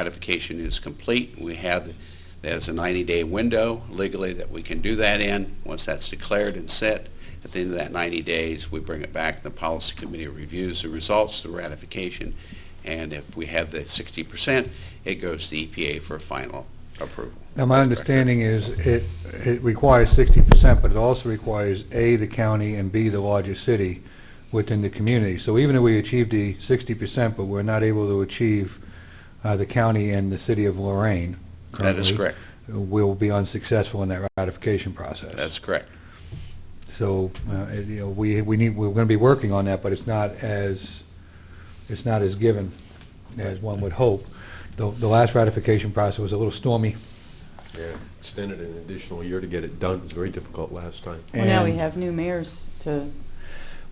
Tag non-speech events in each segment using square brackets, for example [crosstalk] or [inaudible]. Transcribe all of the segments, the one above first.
ratification is complete, we have, there's a 90-day window legally that we can do that in. Once that's declared and set, at the end of that 90 days, we bring it back, the policy committee reviews the results, the ratification, and if we have the 60%, it goes to the EPA for final approval. Now, my understanding is it, it requires sixty percent, but it also requires A, the county, and B, the largest city within the community. So even if we achieve the sixty percent, but we're not able to achieve uh, the county and the city of Lorraine That is currently, correct. We'll be unsuccessful in that ratification process. That's correct. So, uh, it- you know, we, we need, we're going to be working on that, but it's not as, it's not as given as one would hope. The, the last ratification process was a little stormy. Yeah, extended an additional year to get it done. It was very difficult last time. Well, now we and- have new mayors to. Well,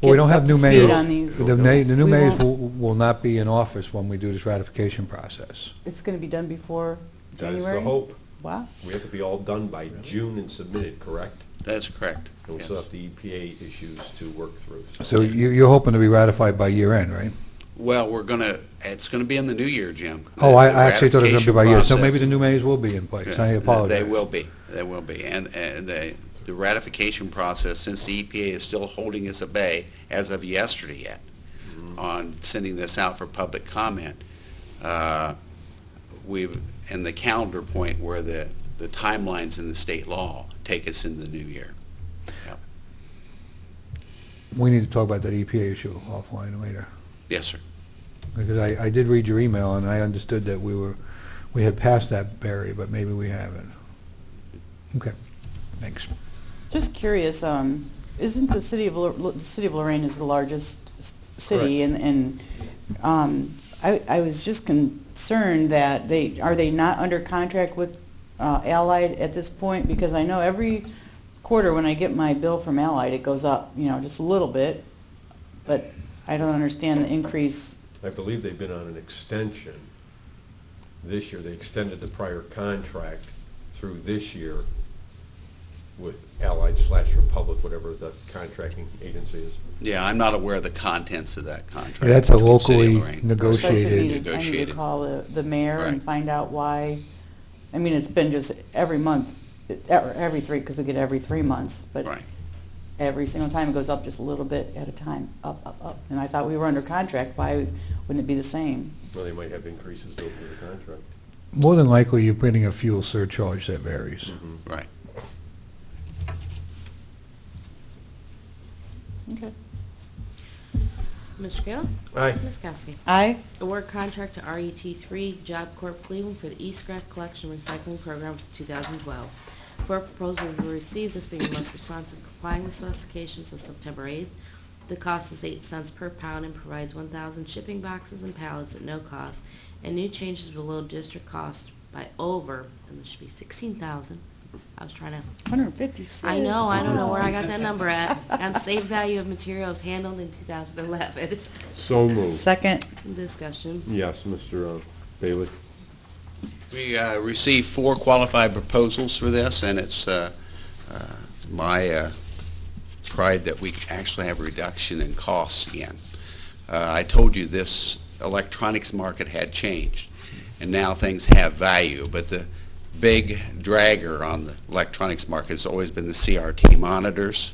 we get don't have up new to mayors. Speed on these. The na- the new We mayors won't- will will not be in office when we do this ratification process. It's going to be done before That January? is the hope. Wow. We have to be all done by June and submitted, correct? That's correct. And we Yes. still have the EPA issues to work through. So you- you're hoping to be ratified by year end, right? Well, we're going to, it's going to be in the new year, Jim. Oh, I The I actually thought it was going to be by ratification year, so maybe process. the new mayors will be in place. I Yeah, apologize. They will be, they will be. And, and the, the ratification process, since the EPA is still holding us at bay as of yesterday yet Mm-hmm. on sending this out for public comment, uh, we've, and the calendar point where the, the timelines in the state law take us into the new year. We need to talk about that EPA issue offline later, Yes, sir. because I I did read your email, and I understood that we were, we had passed that barrier, but maybe we haven't. Okay, thanks. Just curious, um, isn't the city of, Lor- Lo- the city of Lorraine is the largest s- city? And, and um, I, I was just concerned that they, are they not under contract with uh, Allied at this point? Because I know every quarter when I get my bill from Allied, it goes up, you know, just a little bit. But I don't understand the increase. I believe they've been on an extension this year. They extended the prior contract through this year with Allied slash Republic, whatever the contracting agency is. Yeah, I'm not aware of the contents of that contract. Yeah, that's a between the City of locally Lorraine. So I should Negotiated. need to- I need to Negotiated. call the, the mayor and Right. find out why, I mean, it's been just every month, e- or every three, because we get every three months, but Right. every single time it goes up just a little bit at a time, up, up, up. And I thought we were under contract, why wouldn't it be the same? Well, they might have increases built into the contract. More than likely, you're putting a fuel surcharge that varies. Right. Okay. Mr. Kayla? Aye. Ms. Kowski? Aye. Award contract to RET3 Job Corp Cleveland for the E-scrap collection and recycling program for 2012. Four proposals were received, this being the most responsive complying with specifications of September 8th. The cost is 8 cents per pound and provides 1,000 shipping boxes and pallets at no cost, and new changes below district cost by over, and this should be 16,000. I was trying to 156. I know, I don't know where I got that number [laughs] at. On safe value of materials handled in 2011. So moved. Second. Discussion. Yes, Mr. uh, Bailey. We uh, received four qualified proposals for this, and it's uh, uh, my uh, pride that we actually have a reduction in costs again. Uh, I told you this electronics market had changed, and now things have value, but the big dragger on the electronics market has always been the CRT monitors.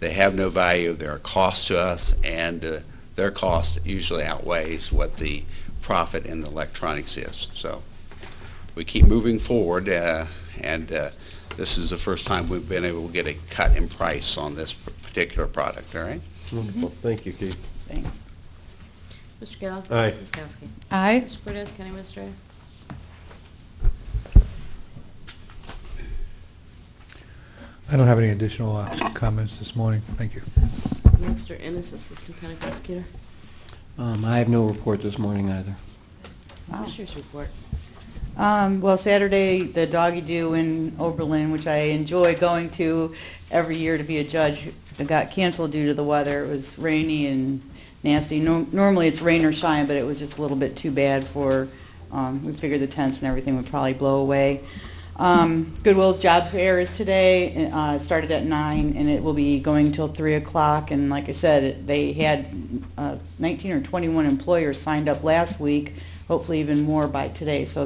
They have no value, they're a cost to us, and uh, their cost usually outweighs what the profit in the electronics is. So we keep moving forward, uh, and uh, this is the first time we've been able to get a cut in price on this p- particular product, all right? Wonderful. Thank you, Keith. Thanks. Mr. Kayla? Aye. Ms. Kowski? Aye. Mr. Cortez, County Administrator? I don't have any additional uh, comments this morning. Thank you. Mr. Ennis, Assistant County Prosecutor. Um, I have no report this morning either. Wow. Commissioners report. Um, well, Saturday, the doggy do in Oberlin, which I enjoy going to every year to be a judge, it got canceled due to the weather. It was rainy and nasty. Nor normally it's rain or shine, but it was just a little bit too bad for, um, we figured the tents and everything would probably blow away. Um, Goodwill's job fair is today. Uh, it started at nine, and it will be going till three o'clock. And like I said, they had uh, 19 or 21 employers signed up last week. Hopefully, even more by today. So